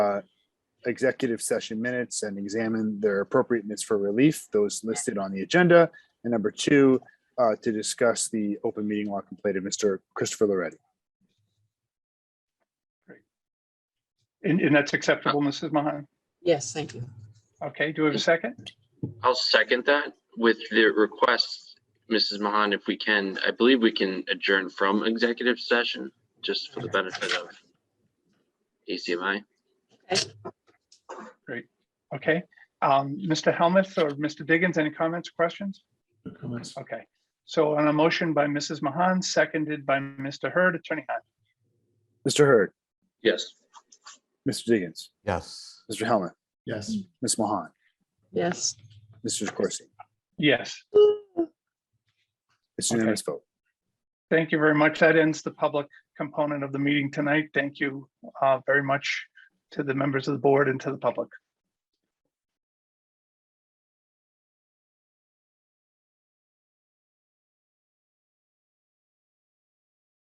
uh, executive session minutes and examine their appropriateness for relief, those listed on the agenda. And number two, uh, to discuss the open meeting law complaint of Mr. Christopher Loretti. And, and that's acceptable, Mrs. Mahan? Yes, thank you. Okay, do we have a second? I'll second that with the request, Mrs. Mahan, if we can, I believe we can adjourn from executive session, just for the benefit of ACMI. Okay. Um, Mr. Helmuth or Mr. Diggins, any comments, questions? comments. Okay. So on a motion by Mrs. Mahan, seconded by Mr. Hurd, Attorney Hunt. Mr. Hurd, Yes. Mr. Diggins, Yes. Mr. Helmut, Yes. Ms. Mahan, Yes. Mr. Corsi. Yes, It's a unanimous vote. thank you very much. That ends the public component of the meeting tonight. Thank you uh, very much to the members of the board and to the public.